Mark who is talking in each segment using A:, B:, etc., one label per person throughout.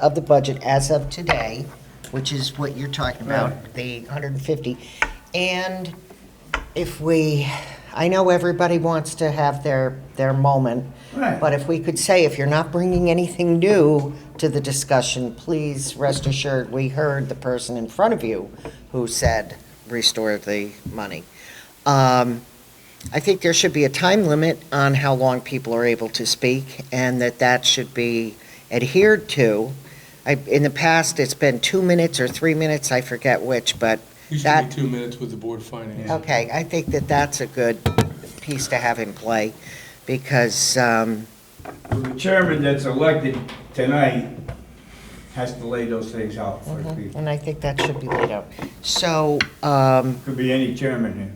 A: of the budget as of today, which is what you're talking about, the 150. And if we, I know everybody wants to have their, their moment,
B: Right.
A: but if we could say, if you're not bringing anything new to the discussion, please rest assured, we heard the person in front of you who said, restore the money. Um, I think there should be a time limit on how long people are able to speak, and that that should be adhered to. I, in the past, it's been two minutes or three minutes, I forget which, but
C: Used to
A: That-
C: be two minutes with the board finance.
A: Okay, I think that that's a good piece to have in play, because, um,
B: The chairman that's elected tonight has to lay those things out for the people.
A: and I think that should be laid out. So, um,
B: Could be any chairman here.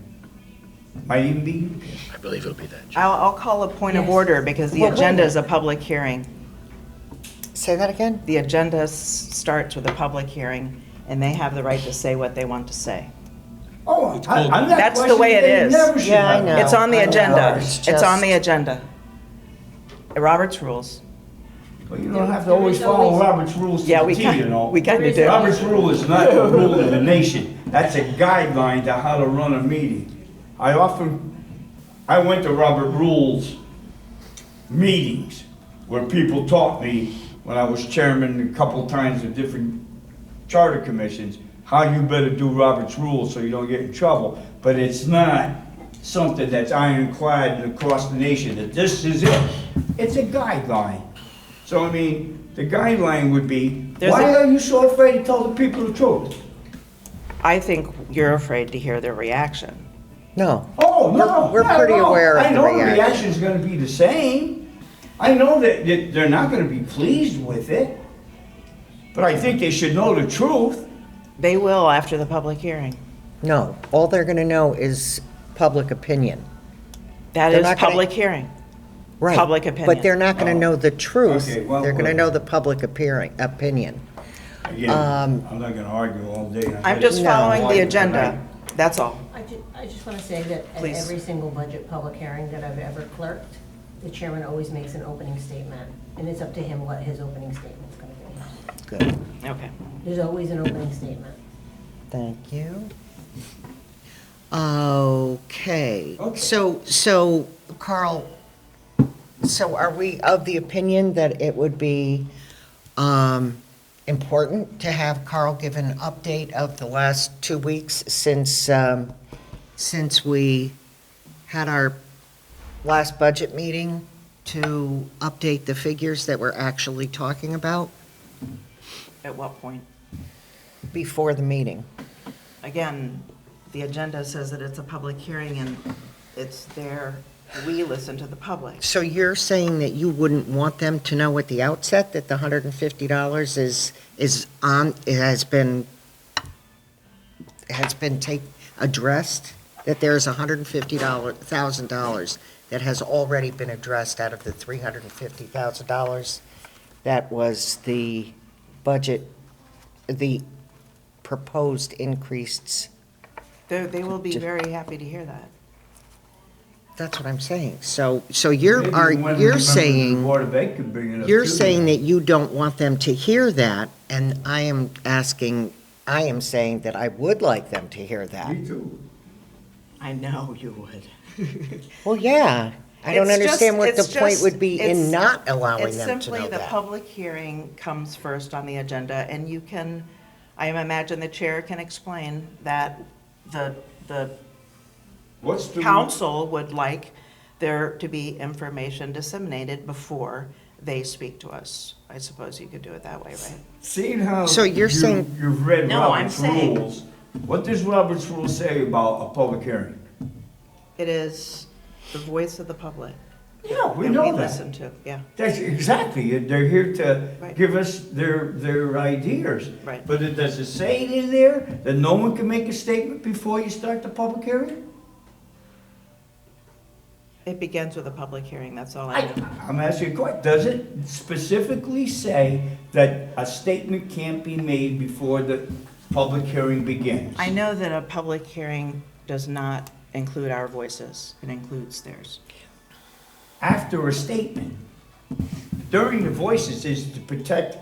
B: Might even be you.
D: I believe it'll be that.
E: I'll, I'll call a point of
F: Yes.
E: order because the
A: Well, wait a
E: agenda is a public hearing.
A: say that again?
E: The agenda s- starts with a public hearing, and they have the right to say what they want to say.
B: Oh,
C: It's
B: I-
C: called-
B: I'm not
E: That's the way it
B: questioning, they
E: is.
B: never should
A: Yeah, I
B: have
A: know.
B: it.
E: It's on the
A: I know.
E: agenda.
A: It's
E: It's on the
A: just-
E: agenda. Robert's rules.
B: Well, you don't have to always follow Robert's rules to
E: Yeah,
B: the
E: we
B: T, you know?
E: kind, we kind of do.
B: Robert's rule is not the rule of the nation. That's a guideline to how to run a meeting. I often, I went to Robert Rules meetings where people taught me, when I was chairman a couple times of different charter commissions, how you better do Robert's rules so you don't get in trouble. But it's not something that's ironclad across the nation, that this is it. It's a guideline. So, I mean, the guideline would be,
E: There's
B: why
E: a-
B: are you so afraid to tell the people the truth?
E: I think you're afraid to hear their reaction.
A: No.
B: Oh, no,
A: We're- we're
B: not at
A: pretty
B: all.
A: aware of the
B: I know the
A: reaction.
B: reaction's gonna be the same. I know that, that they're not gonna be pleased with it. But I think they should know the truth.
E: They will after the public hearing.
A: No, all they're gonna know is public opinion.
E: That
A: They're
E: is
A: not gonna-
E: public hearing.
A: Right.
E: Public
A: But
E: opinion.
A: they're not gonna know the truth.
B: Oh. Okay, well,
A: They're gonna
B: well.
A: know the public appearing, opinion.
B: Again,
A: Um,
B: I'm not gonna argue all day.
E: I'm just
A: No.
E: following the agenda. That's all.
F: I ju, I just want to say that at
E: Please.
F: every single budget public hearing that I've ever clerked, the chairman always makes an opening statement, and it's up to him what his opening statement's going to
A: Good,
E: Okay.
F: be. There's always an opening statement.
A: thank you. Okay,
B: Okay.
A: so, so Carl, so are we of the opinion that it would be, um, important to have Carl give an update of the last two weeks since, um, since we had our last budget meeting to update the figures that we're actually talking about
E: At what point?
A: before the meeting?
E: Again, the agenda says that it's a public hearing and it's there, we listen to the public.
A: So you're saying that you wouldn't want them to know at the outset that the hundred and fifty dollars is, is on, it has been, has been take, addressed? That there's a hundred and fifty dollar, thousand dollars that has already been addressed out of the three hundred and fifty thousand dollars? That was the budget, the proposed increased,
E: They, they will be very happy to hear that.
A: that's what I'm saying. So, so you're, are, you're saying.
B: Board of Ed could bring it up.
A: You're
B: too.
A: saying that you don't want them to hear that, and I am asking, I am saying that I would like them to hear that.
B: Me too.
E: I know you would.
A: Well, yeah, I don't
E: It's just-
A: understand what the
E: it's
A: point
E: just-
A: would be in
E: it's-
A: not allowing them
E: It's
A: to know
E: simply the
A: that.
E: public hearing comes first on the agenda, and you can, I imagine the chair can explain that the, the
B: What's the?
E: council would like there to be information disseminated before they speak to us. I suppose you could do it that way, right?
B: Seeing how.
A: So you're
B: you-
A: saying-
B: You've read
E: No, I'm
B: Robert's
E: saying-
B: rules. What does Robert's rule say about a public hearing?
E: It is the voice of the public.
B: Yeah, we
E: that
B: know
E: we
B: that.
E: listen to, yeah.
B: That's exactly, it. they're here to
E: Right.
B: give us their, their ideas.
E: Right.
B: But it, does it say it in there that no one can make a statement before you start the public hearing?
E: It begins with a public hearing, that's all I
B: I,
E: know.
B: I'm asking a question, does it specifically say that a statement can't be made before the public hearing begins?
E: I know that a public hearing does not include our voices, it includes theirs.
B: After a statement, during the voices is to protect